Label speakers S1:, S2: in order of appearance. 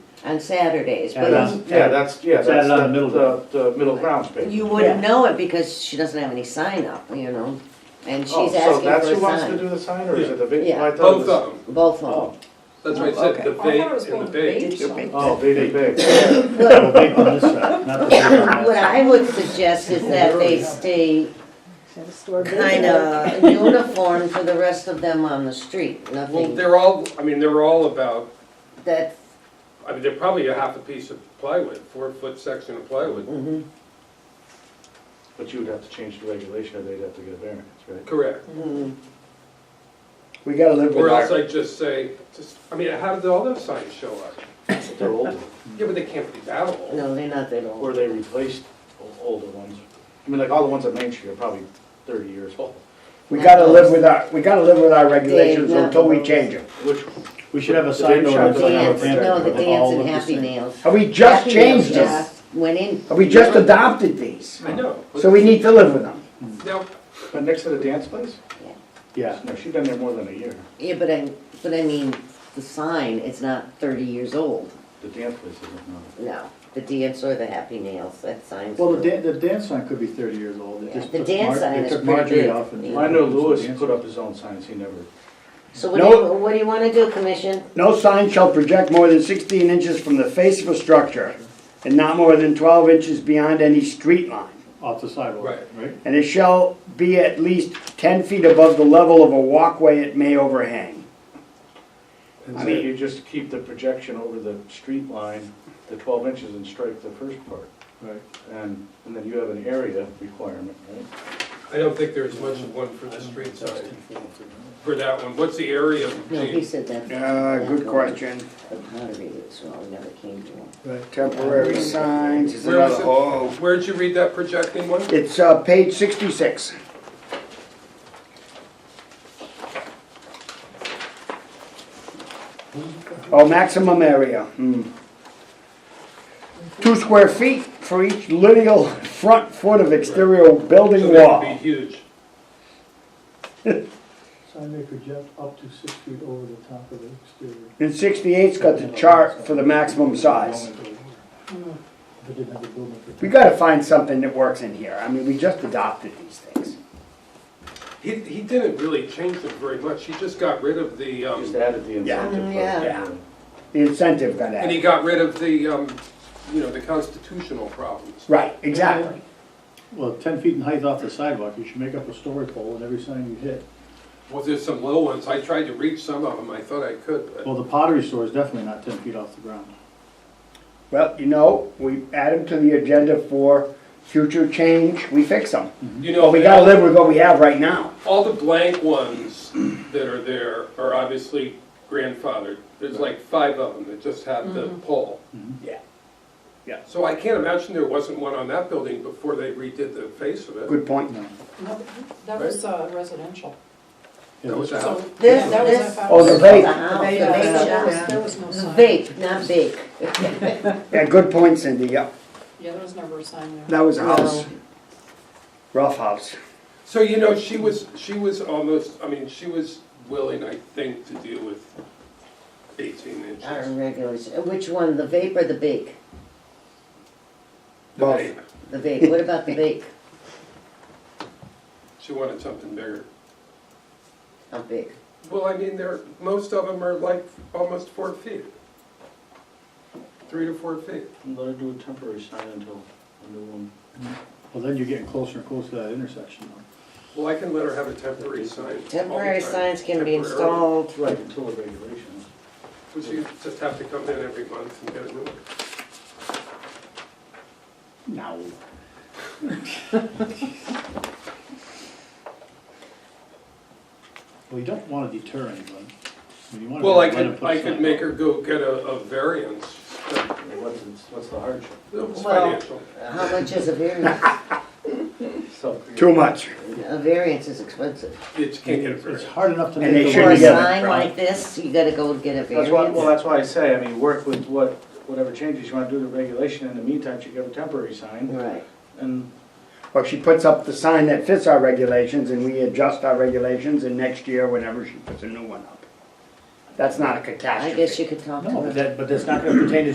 S1: on Saturdays,
S2: And
S1: but
S2: that's-
S3: Yeah, that's, yeah, that's
S2: Saturday
S3: the,
S2: night, middle
S3: the, the middle ground space.
S1: you wouldn't know it because she doesn't have any sign up, you know? And
S3: Oh,
S1: she's asking
S3: So that's
S1: for
S3: who wants to
S1: a
S3: do
S1: sign,
S3: the sign, or is it the big?
S1: Yeah.
S3: I thought it
S4: Both
S3: was-
S4: of them,
S1: both
S3: Oh,
S1: of
S4: that's what I said,
S1: Okay.
S4: the
S5: I
S4: bait
S5: thought it was
S4: and the
S5: both
S4: bait.
S5: bait signs.
S3: oh, big, big, big.
S1: them.
S2: Well, big on this side, not the big on
S1: What
S2: that.
S1: I would suggest is that they stay
S5: At a store big.
S1: kinda uniform for the rest of them on the street,
S4: Well,
S1: nothing,
S4: they're all, I mean, they're all about,
S1: that,
S4: I mean, they're probably a half a piece of plywood, four foot section of plywood.
S1: mhm,
S3: But you would have to change the regulation, or they'd have to get a variance, right?
S4: Correct.
S1: mhm.
S6: We gotta live
S4: Or
S6: with
S4: else
S6: our,
S4: I just say, just, I mean, how did all those signs show up?
S3: They're older,
S4: Yeah, but they can't be that old.
S1: no, they're not that old.
S3: or they replaced o- older ones. I mean, like, all the ones on Main Street are probably thirty years old.
S6: we gotta live with our, we gotta live with our regulations
S1: Dave,
S6: until we
S1: no.
S6: change them.
S3: Which,
S2: We should have a
S3: The
S2: sign
S3: dance
S2: ordinance.
S3: shop.
S2: on our
S1: Dance,
S2: pantry
S1: no, the
S2: with
S1: dance
S2: all
S1: and
S2: of the
S1: happy
S2: same.
S1: nails.
S6: Have we just
S1: Happy
S6: changed
S1: Meals
S6: them?
S1: just Went in.
S6: Have we just adopted these?
S4: I know.
S6: So we need to live with them.
S4: Now,
S3: but next to the dance place?
S2: Yeah,
S3: No, she's been there more than a year.
S1: Yeah, but I, but I mean, the sign, it's not thirty years old,
S3: The dance place isn't, no.
S1: no. The dance or the happy nails, that sign's.
S7: Well, the dan, the dance sign could be thirty years old,
S1: Yeah,
S7: it just
S1: the
S7: took
S1: dance
S7: Mar,
S1: sign
S7: they
S1: is
S7: took
S1: pretty big.
S7: Marjorie off and.
S1: Yeah.
S3: I know Lewis
S7: Dance-
S3: put up his own signs, he never,
S1: So what do you, what do you wanna do, Commission?
S6: No sign shall project more than sixteen inches from the face of a structure and not more than twelve inches beyond any street line.
S2: off the sidewalk,
S4: Right.
S2: right?
S6: And it shall be at least ten feet above the level of a walkway it may overhang.
S3: I mean, you just keep the projection over the street line, the twelve inches, and strike the first part.
S2: Right.
S3: And, and then you have an area requirement, right?
S4: I don't think there's much of one for the street
S2: That's
S4: sign,
S2: too full for me.
S4: for that one. What's the area?
S1: No, he
S4: Gene?
S1: said that.
S6: Uh, good question.
S1: The pottery was, well, we never came to him.
S6: Temporary signs is
S4: Where was
S6: another,
S4: it?
S6: oh.
S4: Where'd you read that projecting one?
S6: It's, uh, page sixty-six. Oh, maximum area, hmm. Two square feet for each lineal front foot of exterior
S4: So
S6: building
S4: that would be
S6: wall.
S4: huge.
S7: Sign may project up to six feet over the top of the exterior.
S6: And sixty-eight's got the chart for the maximum size.
S7: But didn't have a building for.
S6: We gotta find something that works in here, I mean, we just adopted these things.
S4: He, he didn't really change them very much. He just got rid of the, um,
S3: Just added the
S6: Yeah.
S3: incentive. part.
S1: Yeah.
S6: Yeah. The incentive got
S4: And he
S6: added,
S4: got rid of the, um, you know, the constitutional problems.
S6: right, exactly.
S2: Well, ten feet in height off the sidewalk, you should make up a story pole and every sign you hit.
S4: Well, there's some little ones, I tried to reach some of them, I thought I could, but
S2: Well, the pottery store is definitely not ten feet off the ground.
S6: Well, you know, we add them to the agenda for future change, we fix them.
S4: you know.
S6: But Mm-hmm. we gotta live with what we have right now.
S4: All the blank ones that are there are obviously grandfathered. There's like five of them that just have the pole.
S6: Yeah. Yeah.
S4: So I can't imagine there wasn't one on that building before they redid the face of it.
S6: Good point.
S5: No, That was uh, residential.
S4: That was
S5: So,
S4: out.
S1: This,
S5: yeah, that was
S1: this-
S5: a-
S6: Oh, the vape.
S1: The house, the
S5: Yeah,
S1: vape
S5: There was,
S1: shop.
S5: there was no
S1: The
S5: sign.
S1: vape, not bake.
S6: Yeah, good point, Cindy, yep.
S5: Yeah, there was never a sign there.
S6: That was a house. Rough house.
S4: So, you know, she was, she was almost, I mean, she was willing, I think, to deal with eighteen
S1: Our
S4: inches.
S1: regulars, uh, which one, the vape or the bake?
S4: The
S6: Both.
S4: vape.
S1: The vape, what about the bake?
S4: She wanted something bigger.
S1: How big?
S4: Well, I mean, they're, most of them are like almost four feet. Three to four feet.
S3: Let her do a temporary sign until a new one.
S2: Well, then you're getting closer and closer to that intersection though.
S4: Well, I can let her have a temporary sign. all the
S1: Temporary
S4: time.
S1: signs can be
S4: Temporary.
S1: installed.
S3: Right, until the regulations.
S4: But you just have to come in every month and get a new one.
S2: No. Well, you don't wanna deter anyone. I mean, you wanna
S4: Well, I
S2: let them
S4: could,
S2: put a
S4: I could
S2: sign
S4: make
S2: up.
S4: her go get a, a variance, but
S3: What's, what's the hardship?
S4: it's
S1: Well-
S4: financial.
S1: How much is a variance?
S6: Too much.
S1: A variance is expensive.
S4: You just can't get a
S2: It's
S4: variance.
S2: hard enough to
S6: And
S2: make.
S6: they
S2: a
S6: should
S1: For a
S6: be
S2: living.
S6: together,
S1: sign
S6: right?
S1: like this, you gotta go get a
S3: That's why, well,
S1: variance.
S3: that's why I say, I mean, work with what, whatever changes you wanna do to regulation, in the meantime, you get a temporary sign,
S1: Right.
S3: and
S6: Or she puts up the sign that fits our regulations and we adjust our regulations and next year, whenever she puts a new one up. That's not a
S1: I
S6: catastrophe.
S1: guess you could talk to
S2: No,
S1: them.
S2: but that, but that's not gonna pertain to